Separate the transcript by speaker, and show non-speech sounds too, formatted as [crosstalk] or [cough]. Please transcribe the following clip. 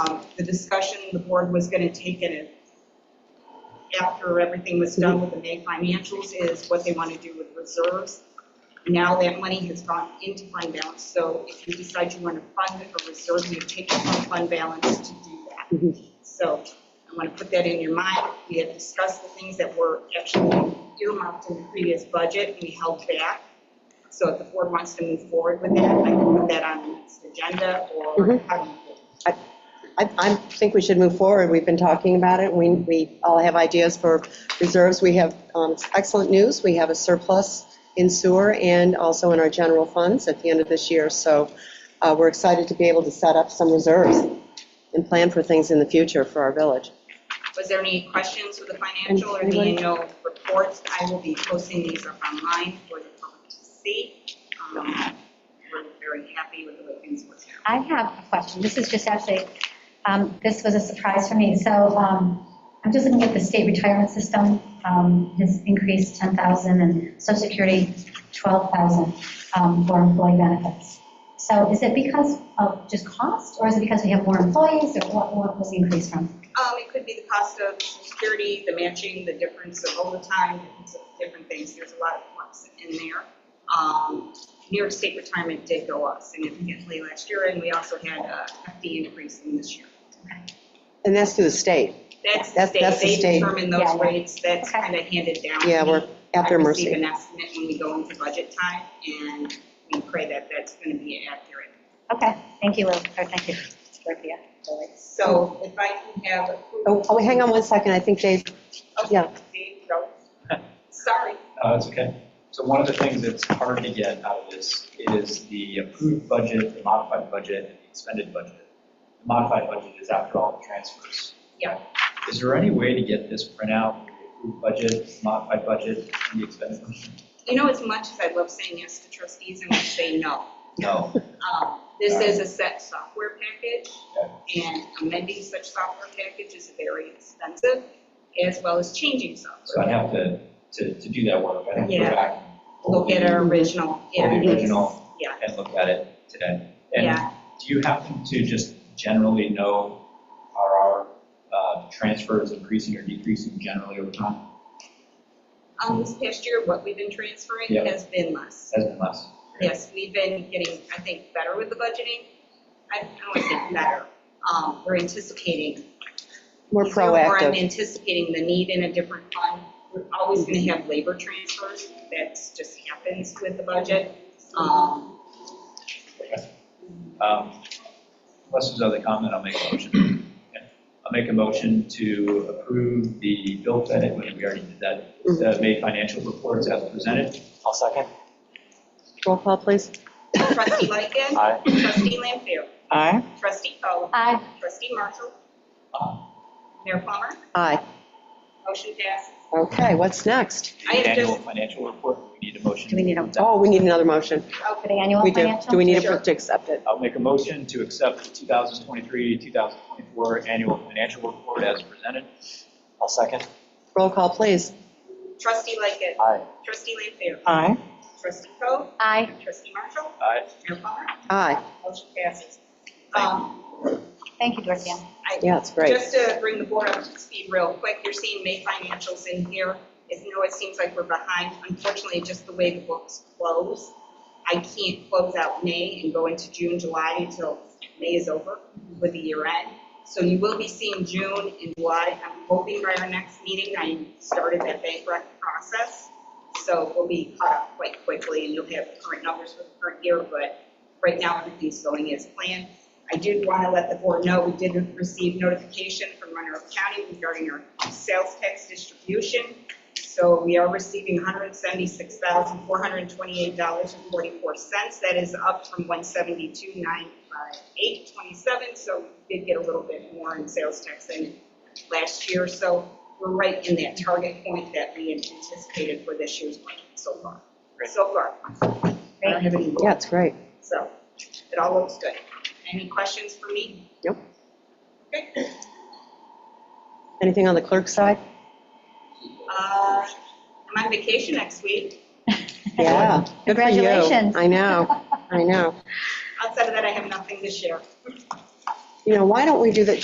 Speaker 1: Um, The discussion the board was going to take in it after everything was done with the May financials is what they want to do with reserves. Now that money has gone into fund balance, so if you decide you want to fund a reserve, you take it from fund balance to do that. So I want to put that in your mind. We had discussed the things that were actually earmarked in the previous budget, and we held back. So if the board wants to move forward with that, I can put that on the next agenda or
Speaker 2: Mhm.
Speaker 1: how do you feel?
Speaker 2: I, I think we should move forward. We've been talking about it. We, we all have ideas for reserves. We have um, excellent news. We have a surplus in sewer and also in our general funds at the end of this year. So uh, we're excited to be able to set up some reserves and plan for things in the future for our village.
Speaker 1: Was there any questions with the financial or the
Speaker 2: Anybody?
Speaker 1: annual reports? I will be posting these up online for the public to see. Um, We're very happy with the way things worked out.
Speaker 3: I have a question. This is just actually, um, this was a surprise for me. So um, I'm just looking at the state retirement system um, has increased 10,000 and social security 12,000 um, for employee benefits. So is it because of just cost or is it because we have more employees or what, what was the increase from?
Speaker 1: Um, it could be the cost of security, the matching, the difference of overtime, difference of different things. There's a lot of flux in there. Um, New York State retirement did go up significantly last year, and we also had a hefty increase in this year.
Speaker 2: And that's through the state.
Speaker 1: That's the
Speaker 2: That's-
Speaker 1: state,
Speaker 2: that's the
Speaker 1: they
Speaker 2: state.
Speaker 1: determine
Speaker 3: Yeah,
Speaker 1: those
Speaker 3: yeah.
Speaker 1: rates, that's
Speaker 3: Okay.
Speaker 1: kind of handed down.
Speaker 2: Yeah,
Speaker 1: to me.
Speaker 2: we're after
Speaker 1: I receive
Speaker 2: Mercy.
Speaker 1: an estimate when we go into budget time, and we pray that that's going to be accurate.
Speaker 3: Okay, thank you, Lil, or thank you, Dorothea.
Speaker 1: So if I can have
Speaker 2: Oh,
Speaker 1: approval.
Speaker 2: oh, hang on one second. I think Dave, yeah.
Speaker 1: See, no. [laughs] Sorry,
Speaker 4: Uh, It's okay. So one of the things that's hard to get out of this is the approved budget, the modified budget, and the expended budget. The modified budget is after all the transfers.
Speaker 1: Yeah.
Speaker 4: Is there any way to get this printout, the approved budget, modified budget, and the expended budget?
Speaker 1: you know, as much as I love saying yes to trustees, I'm going to say no.
Speaker 4: No.
Speaker 1: Um, This is a set software package, and amending such software package is very expensive, as well as changing
Speaker 4: So I'd
Speaker 1: software.
Speaker 4: have to, to, to do that work. I'd have to go
Speaker 1: Yeah.
Speaker 4: back. and
Speaker 1: Look at our original.
Speaker 4: Or the
Speaker 1: yeah, it is.
Speaker 4: original.
Speaker 1: Yeah,
Speaker 4: And look at it today. And
Speaker 1: yeah.
Speaker 4: Do you happen to just generally know, are our uh, transfers increasing or decreasing generally over time?
Speaker 1: Um, this past year, what we've been transferring
Speaker 4: Yeah.
Speaker 1: has been less.
Speaker 4: Has been less?
Speaker 1: Yes, we've been getting, I think, better with the budgeting. I I don't want to say better. Um, we're anticipating.
Speaker 2: We're
Speaker 1: So, or I'm
Speaker 2: proactive.
Speaker 1: anticipating the need in a different fund. We're always going to have labor transfers. That's just happens with the budget. Um,
Speaker 4: Um, Unless there's other comment, I'll make a motion. Yeah. I'll make a motion to approve the bill edit, when we already did that, the May financial reports as presented.
Speaker 5: I'll second.
Speaker 2: Roll call, please.
Speaker 1: trustee Lightgev.
Speaker 5: Aye.
Speaker 1: Trustee Lampier.
Speaker 5: Aye.
Speaker 1: Trustee Coe.
Speaker 3: Aye.
Speaker 1: Trustee Marshall.
Speaker 4: Aye.
Speaker 1: Mayor Plummer.
Speaker 2: Aye.
Speaker 1: Motion passes.
Speaker 2: Okay, what's next?
Speaker 1: I have
Speaker 4: Annual
Speaker 1: just-
Speaker 4: financial report, we need a motion.
Speaker 3: Do we need a-
Speaker 2: Oh, we need another motion.
Speaker 3: For the annual
Speaker 2: We do.
Speaker 3: financial?
Speaker 2: Do we need
Speaker 1: Sure.
Speaker 2: a- to accept it?
Speaker 4: I'll make a motion to accept the 2023, 2024 annual financial report as presented.
Speaker 5: I'll second.
Speaker 2: Roll call, please.
Speaker 1: Trustee Lightgev.
Speaker 5: Aye.
Speaker 1: Trustee Lampier.
Speaker 5: Aye.
Speaker 1: Trustee Coe.
Speaker 3: Aye.
Speaker 1: Trustee Marshall.
Speaker 4: Aye.
Speaker 1: Mayor Plummer.
Speaker 2: Aye.
Speaker 1: Motion passes.
Speaker 4: Thank
Speaker 1: Um,
Speaker 3: Thank you, Dorothea.
Speaker 2: Yeah, it's great.
Speaker 1: Just to bring the board up to speed real quick, you're seeing May financials in here. As you know, it seems like we're behind. Unfortunately, just the way the books close, I can't close out May and go into June, July until May is over with the year end. So you will be seeing June and July. I'm hoping by our next meeting, I started that bank rec process. So we'll be caught up quite quickly and you'll have the current numbers for the current year, but right now everything's going as planned. I did want to let the board know, we did receive notification from Monroe County regarding our sales tax distribution. So we are receiving $176,428.44. That is up from 172,958.27. So we did get a little bit more in sales tax than last year. So we're right in that target point that we anticipated for this year's budget so far. So far. I don't have any-
Speaker 2: Yeah, it's great.
Speaker 1: so it all looks good. Any questions for me?
Speaker 2: Nope.
Speaker 1: Okay.
Speaker 2: Anything on the clerk's side?
Speaker 1: Uh, I'm on vacation next week.
Speaker 2: Yeah. Good for you.
Speaker 3: Congratulations.
Speaker 2: I know, I know.
Speaker 1: Outside of that, I have nothing to share.
Speaker 2: you know, why don't we do that,